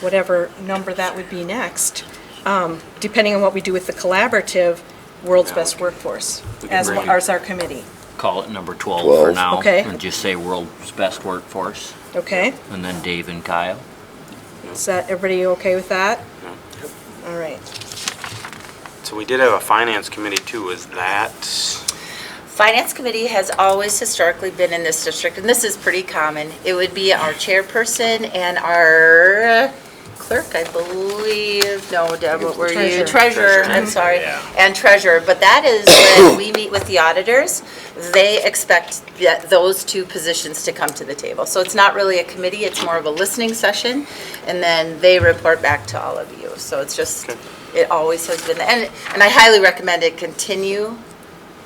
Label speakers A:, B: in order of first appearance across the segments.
A: whatever number that would be next, um, depending on what we do with the collaborative, World's Best Workforce,
B: We can
A: as,
B: bring it.
A: as our committee,
B: Call it number 12 for
C: 12.
B: now.
A: Okay.
B: And just say world's best workforce,
A: okay?
B: and then Dave and Kyle.
A: Is that, everybody okay with that? All right.
D: So we did have a finance committee too, is that?
E: Finance Committee has always historically been in this district, and this is pretty common. It would be our chairperson and our clerk, I believe, no, Deb, what were you?
A: Treasurer.
E: Treasurer, I'm
D: Treasurer,
E: sorry,
D: yeah.
E: and treasurer. But that is when we meet with the auditors, they expect that those two positions to come to the table. So it's not really a committee, it's more of a listening session, and then they report back to all of you. So it's just, it always has been, and, and I highly recommend it continue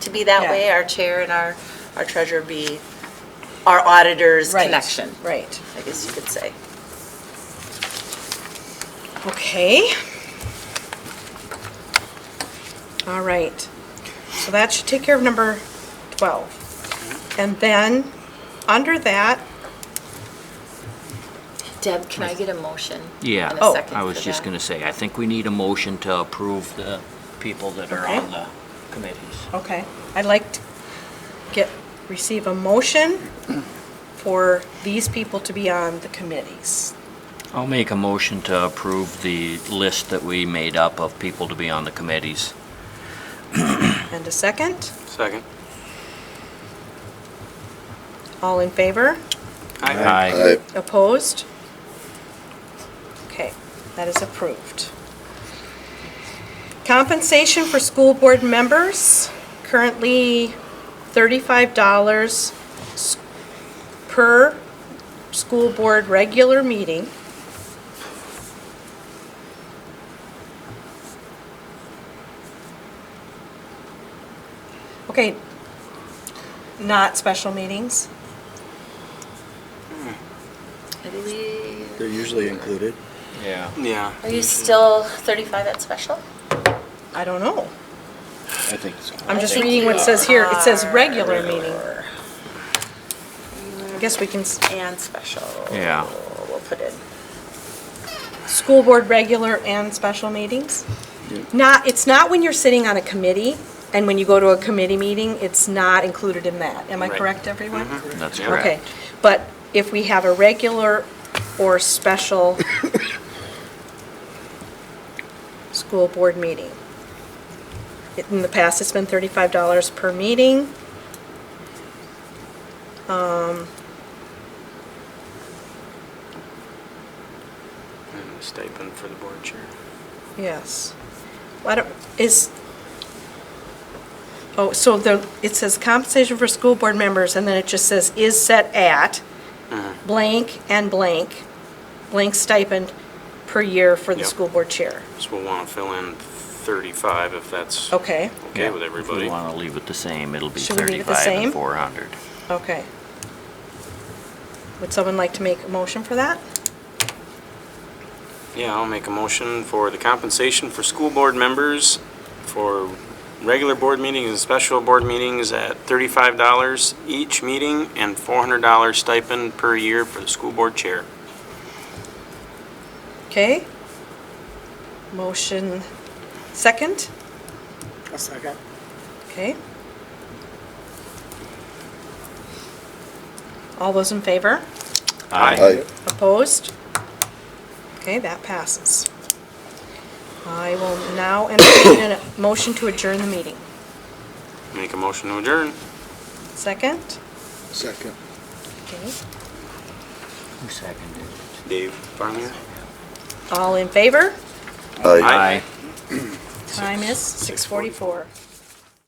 E: to be that
A: Yeah.
E: way, our chair and our, our treasurer be our auditor's
A: Right,
E: connection,
A: Right.
E: I guess you could say.
A: Okay. All right. So that should take care of number 12. And then, under that,
E: Deb, can I get a motion?
B: Yeah.
E: and a
A: Oh.
E: second
B: I
E: for
B: was just
E: that?
B: going to say, I think we need a motion to approve the people that are
A: Okay.
B: on the committees.
A: okay, I'd like to get, receive a motion for these people to be on the committees.
B: I'll make a motion to approve the list that we made up of people to be on the committees.
A: And a second?
D: Second.
A: All in favor?
B: Aye.
A: Opposed? Okay, that is approved. Compensation for school board members, currently $35 s- per school board regular meeting. Okay, not special meetings?
E: I believe-
F: They're usually included.
B: Yeah.
D: Yeah.
E: Are you still 35 at special?
A: I don't know.
F: I think so.
A: I'm
E: I
A: just
E: think
A: reading
E: you
A: what it says here. It says
E: are.
A: regular meeting. I guess we can, s-
E: And special.
B: Yeah.
E: We'll put in.
A: school board regular and special meetings? Not, it's not when you're sitting on a committee and when you go to a committee meeting, it's not included in that. Am I
D: Right.
A: correct, everyone?
B: That's
D: Yeah.
B: correct.
A: Okay, but if we have a regular or special school board meeting, it- in the past, it's been thirty-five dollars per meeting. Um,
D: And a Stipend for the board chair.
A: yes. Why don't, is, oh, so the, it says compensation for school board members, and then it just says is set at blank and blank, blank stipend per year for the
D: Yep.
A: school board chair.
D: So we'll want to fill in 35 if that's
A: Okay,
D: okay with
B: If we
D: everybody.
B: want to leave it the same, it'll be
A: Should we leave it the
B: 35
A: same?
B: and 400.
A: okay. Would someone like to make a motion for that?
D: Yeah, I'll make a motion for the compensation for school board members for regular board meetings and special board meetings at $35 each meeting and $400 stipend per year for the school board chair.
A: Okay. Motion second,
F: A second.
A: okay. All those in favor?
C: Aye.
A: Opposed? Okay, that passes. I will now entertain a motion to adjourn the meeting.
D: Make a motion to adjourn.
A: Second?
F: Second.
A: Okay.
B: Who seconded?
D: Dave Farmier?
A: All in favor?
D: Aye.
C: Aye.
A: Time is 6:44.